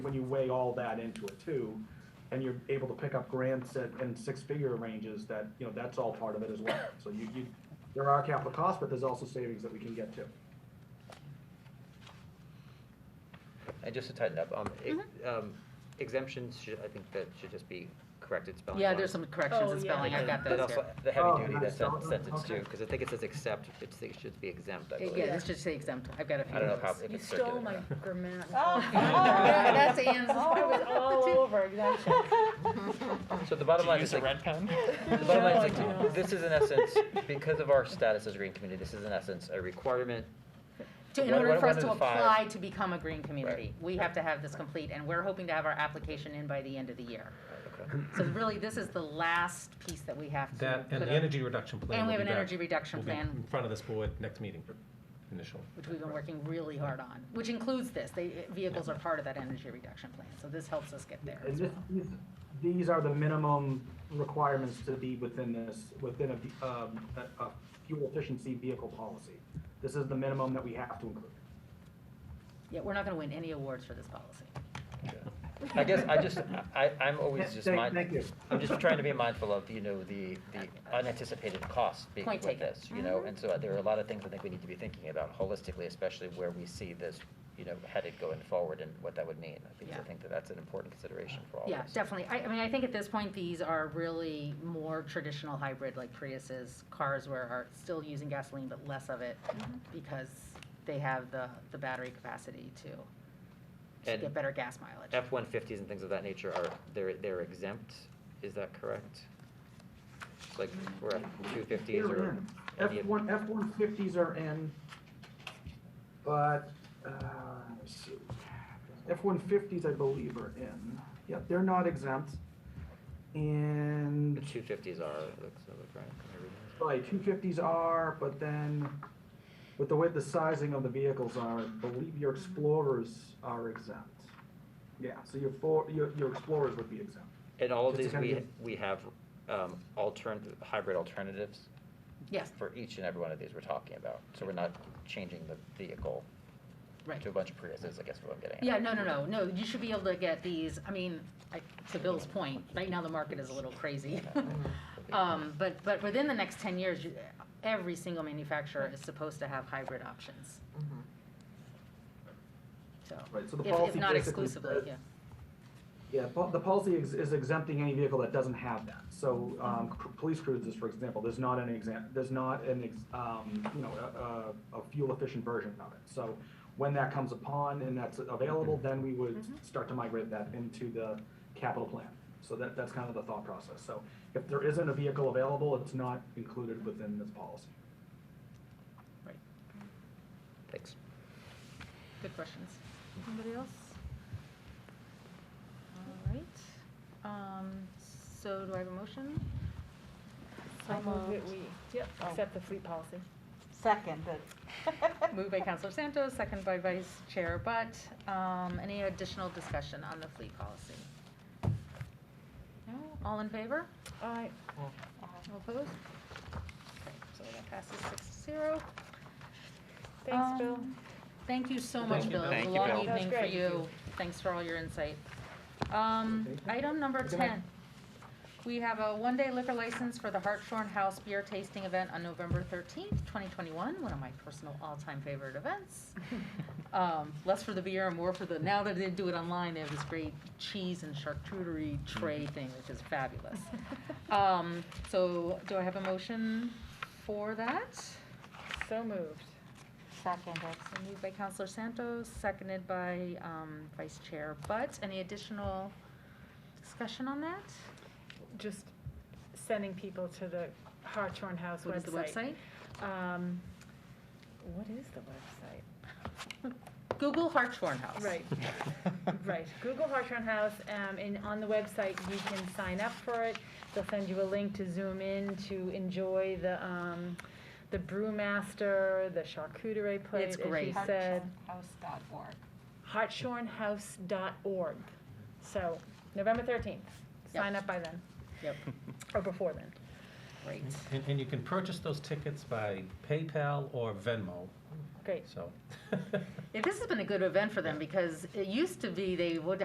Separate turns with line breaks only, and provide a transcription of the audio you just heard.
when you weigh all that into it too, and you're able to pick up grants at, in six-figure ranges, that, you know, that's all part of it as well. So you, you, there are capital costs, but there's also savings that we can get to.
And just to tighten up, um, ex- um, exemptions should, I think that should just be corrected spelling.
Yeah,
wise.
there's some corrections
Oh,
in
yeah.
spelling, I got
But
those
also,
here.
the
Oh,
heavy duty,
nice.
that's sen-
Oh,
sentence
okay.
too, because I think it says except, it's, it should be exempt, I
It-
believe.
Yeah, let's just say exempt, I've got a few
I don't know
of
if how,
those.
if
You
it's
stole
circular.
my grammar.
Oh.
That's Anne's.
Oh, it was all over exemption.
So the bottom
Did you
line
use
is
a
like,
red pen?
the bottom line is
No, I
like,
don't.
this is in essence, because of our status as a green community, this is in essence a requirement.
To, in
What-
order
what
for us
about
to
in five?
apply to become a green community, we have to have this complete, and we're hoping to have our application in by the end of the year.
Okay.
So really, this is the last piece that we have to.
That, and
put
the
up.
energy reduction plan.
And we have
will be
an
back-
energy reduction
will be
plan.
In front of this board next meeting, initially.
which we've been working really hard on, which includes this. They, eh, vehicles are part of that energy reduction plan, so this helps us get there
And
as
this,
well.
these- these are the minimum requirements to be within this, within a, um, a, a fuel efficiency vehicle policy. This is the minimum that we have to include.
Yeah, we're not gonna win any awards for this policy.
I guess I just, I, I'm always just
Thank-
mind,
thank you.
I'm just trying to be mindful of, you know, the, the unanticipated costs being
Point
with
taken.
this, you know? And so there are a lot of things I think we need to be thinking about holistically, especially where we see this, you know, headed going forward and what that would mean. I think, I
Yeah.
think that that's an important consideration for all of
Yeah,
us.
definitely. I, I mean, I think at this point, these are really more traditional hybrid like Priuses, cars where are still using gasoline, but less of it
Mm-hmm.
because they have the, the battery capacity to, to
And-
get better gas mileage.
F-150s and things of that nature are, they're, they're exempt, is that correct? Like, we're at 250s
They're
or?
in.
any
F
of-
one, F one fifties are in, but, uh, let's see. F one fifties, I believe, are in. Yeah, they're not exempt.
The
And,
250s are, it looks, it looks right. Am I reading this?
right, two fifties are, but then with the way the sizing of the vehicles are, I believe your Explorers are exempt. Yeah, so your four, your, your Explorers would be exempt.
And all of
Just
these,
to
we,
kind
we have um, altern, hybrid alternatives
Yes,
for each and every one of these we're talking about. So we're not changing the vehicle
right.
to a bunch of Priuses, I guess is what I'm getting at.
Yeah, no, no, no, no, you should be able to get these, I mean, I- to Bill's point, right now the market is a little crazy. Um, But, but within the next 10 years, you- every single manufacturer is supposed to have hybrid options. So,
Right, so the
if
policy
if not
basically
exclusively,
says-
yeah.
Yeah, po- the policy is- is exempting any vehicle that doesn't have that. So, um, cr- police cruisers, for example, there's not an exam, there's not an, ex- um, you know, a, a- a fuel efficient version of it. So when that comes upon and that's available, then we would start to migrate that into the capital plan. So that, that's kind of the thought process. So if there isn't a vehicle available, it's not included within this policy.
Thanks.
Good questions.
Anybody else? All right, um, so do I have a motion?
I move that we, Oh. yep, accept the fleet policy.
Second, but.
Moved by Counselor Santos, second by Vice Chair Butt. Um, Any additional discussion on the fleet policy? No? All in favor?
All right,
All opposed? Okay, So that passes six to zero.
thanks, Bill.
Um, Thank you so much, Bill. It
Thank
was a
you,
long
Bill.
That was
evening for
great.
you. Thanks for all your insight. Um, Item number 10. We have a one-day liquor license for the Hartshorn House Beer Tasting Event on November 13th, 2021, one of my personal all-time favorite events. Um, Less for the beer and more for the, now that they do it online, they have this great cheese and charcuterie tray thing, which is fabulous. Um, So do I have a motion for that?
So moved.
Seconded.
So moved by Counselor Santos, seconded by um, Vice Chair Butt. Any additional discussion on that?
Just sending people to the Hartshorn House website.
What is the website?
Um, what is the website?
Google Hartshorn House.
Right, right. Google Hartshorn House, um, and on the website, you can sign up for it. They'll send you a link to zoom in to enjoy the, um, the brewmaster, the charcuterie plate, as you
great.
said.
House.org.
hartshornhouse.org. So, November 13th.
Yep.
Sign up by then,
Yep,
or before then.
great.
And, and you can purchase those tickets by PayPal or Venmo,
Great.
so.
Yeah, this has been a good event for them because it used to be they would